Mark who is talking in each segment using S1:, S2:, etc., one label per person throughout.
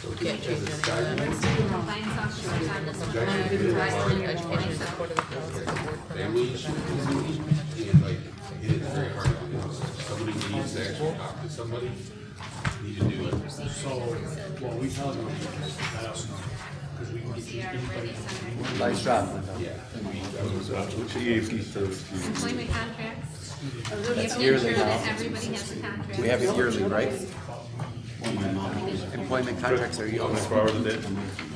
S1: So we
S2: Can't
S1: as
S2: change
S1: a
S2: any of that.
S1: guideline.
S3: Compliance officers on this one.
S1: Guys,
S3: Compliance
S1: we did it.
S3: officers.
S2: Education is supported with policy of the board for
S1: Families, and like, it is very hard to do. Somebody needs to actually talk to somebody, need to do it.
S4: So, what we tell them is that, because we can get you anybody.
S5: Nice job, Linda.
S1: Yeah.
S6: Which EAP service do you use?
S3: Employment contracts.
S5: That's
S3: You have to
S5: yearly
S3: ensure that
S5: now.
S7: Oh,
S3: everybody has a contract.
S5: We have it yearly, right? Employment contracts are
S6: How
S5: yearly,
S6: many hours a day?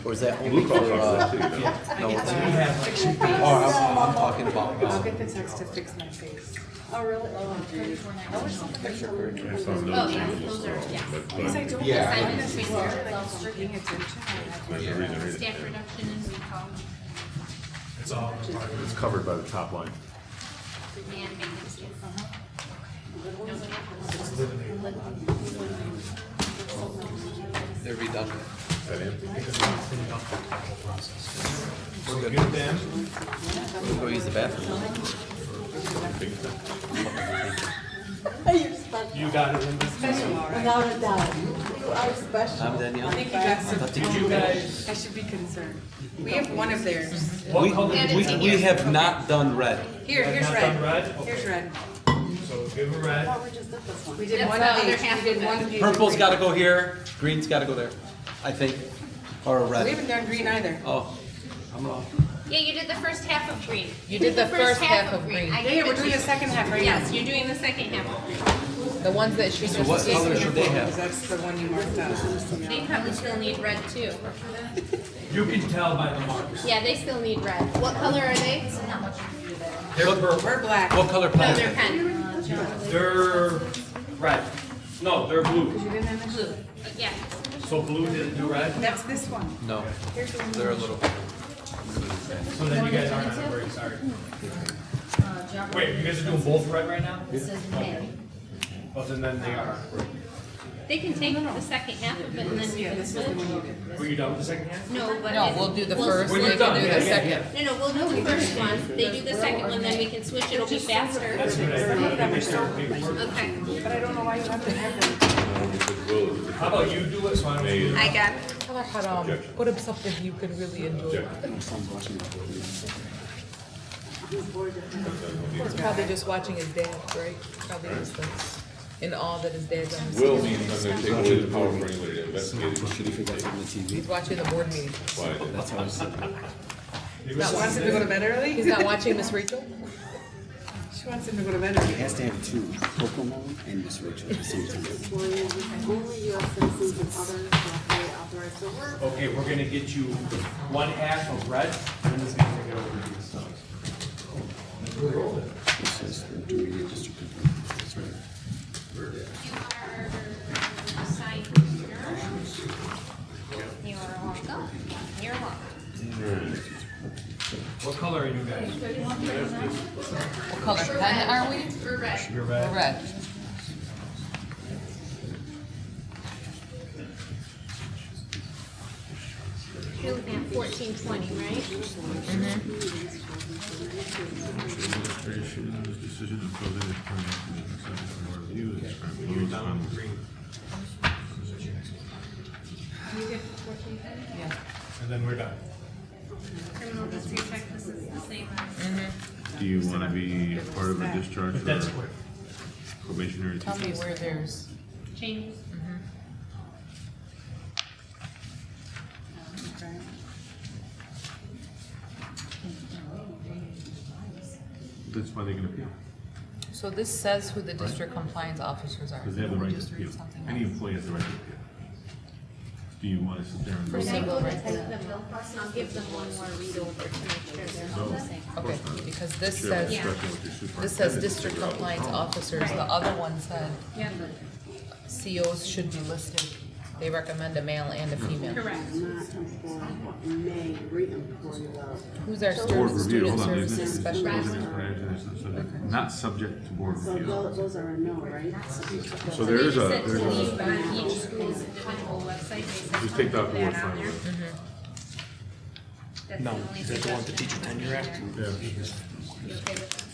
S5: or is that only
S6: Blue
S5: for,
S6: collar jobs,
S5: uh,
S6: too, you know?
S5: no, it's, oh, I'm, I'm talking about,
S7: I'll
S5: uh,
S7: get the text to fix my face.
S8: Oh, really? Oh, geez. I wish
S6: There's some
S3: Oh,
S6: those
S3: yeah,
S6: things,
S3: those are, yes.
S6: but-
S7: Because I
S6: but-
S7: don't
S1: Yeah, I-
S7: understand this word, like, it's for paying attention.
S6: There's a reason, reason.
S3: Staff reduction and recall,
S4: It's all part of
S6: It's covered by the top line.
S3: and maintenance, yes.
S5: they're redundant.
S6: Is that it?
S4: So give them,
S5: Go use the bathroom.
S8: You're special,
S4: you got it, Linda.
S8: without a doubt. You are special.
S5: I'm Danielle.
S7: I think you got some,
S5: Did you
S7: I should be concerned. We have one of theirs.
S4: What color?
S3: And
S5: We,
S3: it's in
S5: we
S3: here.
S5: have not done red.
S7: Here, here's
S4: Not
S7: red.
S4: done red?
S7: Here's
S4: Okay.
S7: red.
S4: So give them red.
S8: Oh, we just did this one.
S7: We did
S3: That's
S7: one
S3: the
S7: of
S3: other
S7: each,
S3: half
S7: we did
S3: of it.
S7: one of each.
S5: Purple's gotta go here, green's gotta go there, I think, or
S7: We
S5: red.
S7: haven't done green either.
S5: Oh, I'm wrong.
S3: Yeah, you did the first half of green.
S2: You did the first half of green.
S3: I
S7: Yeah, yeah,
S3: gave
S7: we're
S3: it to
S7: doing the
S3: you.
S7: second half right now.
S3: Yes, you're doing the second half of green.
S2: The ones that she
S5: So what
S2: just
S5: color
S2: gave
S5: should
S2: me.
S5: they
S7: Because
S5: have?
S7: that's the one you marked out.
S3: They probably still need red too.
S4: You can tell by the markers.
S3: Yeah, they still need red. What color are they?
S4: They're purple,
S7: We're black.
S5: What color
S3: No, they're
S5: plastic?
S3: pen.
S4: they're red. No, they're blue.
S3: Blue. Yeah.
S4: So blue didn't do red?
S7: That's this one.
S5: No, they're a little.
S4: So then you guys aren't on a break, sorry. Wait, you guys are doing both red right now? Okay. Well, then then they are.
S3: They can take the second half of it and then we
S7: Yeah,
S3: can
S7: this was the one you
S3: switch.
S7: did.
S4: Were you done with the second half?
S3: No, but.
S2: No,
S3: it-
S2: we'll do the
S3: we'll-
S2: first,
S4: When
S2: they
S4: you're
S2: can
S4: done,
S2: do
S4: yeah,
S2: the
S4: yeah,
S2: second.
S3: No, no, we'll do the first one, they do the second one, then we can switch, it'll be faster. Okay,
S7: But I don't know why you have to have them.
S6: How
S4: How about you do it, so I don't.
S6: May,
S3: I got it.
S2: Tell her how to put up something you can really enjoy. He's probably just watching his dad, right? Probably just this, and all that his dad's on.
S6: will means I'm gonna take away the power for anybody to investigate. it.
S2: He's watching the board meeting.
S6: Why?
S7: She wants him to go to bed
S2: He's
S7: early?
S2: not watching Miss Rachel?
S7: She wants him to go to bed early.
S9: has to have two, Pokemon and Miss Rachel at the same time.
S8: Employees, Only US citizens and others who are authorized to work.
S4: Okay, we're gonna get you one half of red, and this is gonna take it over to you. so.
S9: This is for intermediate district. control. That's right.
S3: You are assigned You're welcome. You're welcome.
S4: What color are you guys?
S2: What color pen are we?
S3: We're ready.
S4: You're red.
S2: Red.
S3: You're looking at fourteen twenty, right?
S4: And then we're done.
S3: Criminal history check, this is the same.
S6: Do you wanna be part of a discharge
S4: But that's quick.
S6: probationary? Mm-hmm.
S2: Tell me where there's.
S3: Changes.
S6: That's why they can appeal,
S2: So this says who the district compliance officers are.
S6: because they have the right
S2: Just
S6: to
S2: read
S6: appeal.
S2: something
S6: Any
S2: else.
S6: employee has the right to appeal. Do you wanna sit there and?
S3: We're
S6: vote?
S3: gonna go over them real quick, and I'll give them one more read over to make sure
S6: Oh,
S3: they're all the same.
S2: Okay, because this
S6: Should have
S2: says,
S6: discussion with your superintendent.
S2: this says
S6: to
S2: district
S6: figure out
S2: compliance officers, the other one said COs should be listed. They recommend a male and a female.
S3: Correct.
S8: Not employed, but may re-employ without.
S2: Who's our
S6: the Board
S2: student,
S6: review,
S2: student
S6: hold on, there's there's-
S2: services
S6: there's
S2: specialist?
S6: an explanation, there's a subject- not subject to board
S8: So tho-
S6: review.
S8: those are a no, right?
S6: So there is a,
S3: They just said to
S6: there's
S3: leave
S6: a,
S3: on each school's individual website, they said.
S6: just take that
S3: put
S6: word
S3: that on
S6: from
S3: there.
S6: it.
S3: That's the only suggestion I have on there. You okay with that?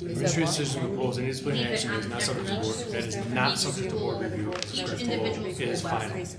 S4: Administrative decision proposed, any disciplinary
S3: Leave it
S4: action
S3: on
S4: is not subject to
S3: every
S4: board,
S3: school.
S4: that is not
S3: Each
S4: subject to
S3: school-
S4: board review.
S3: Each individual
S4: It is
S3: school
S4: final.
S3: website.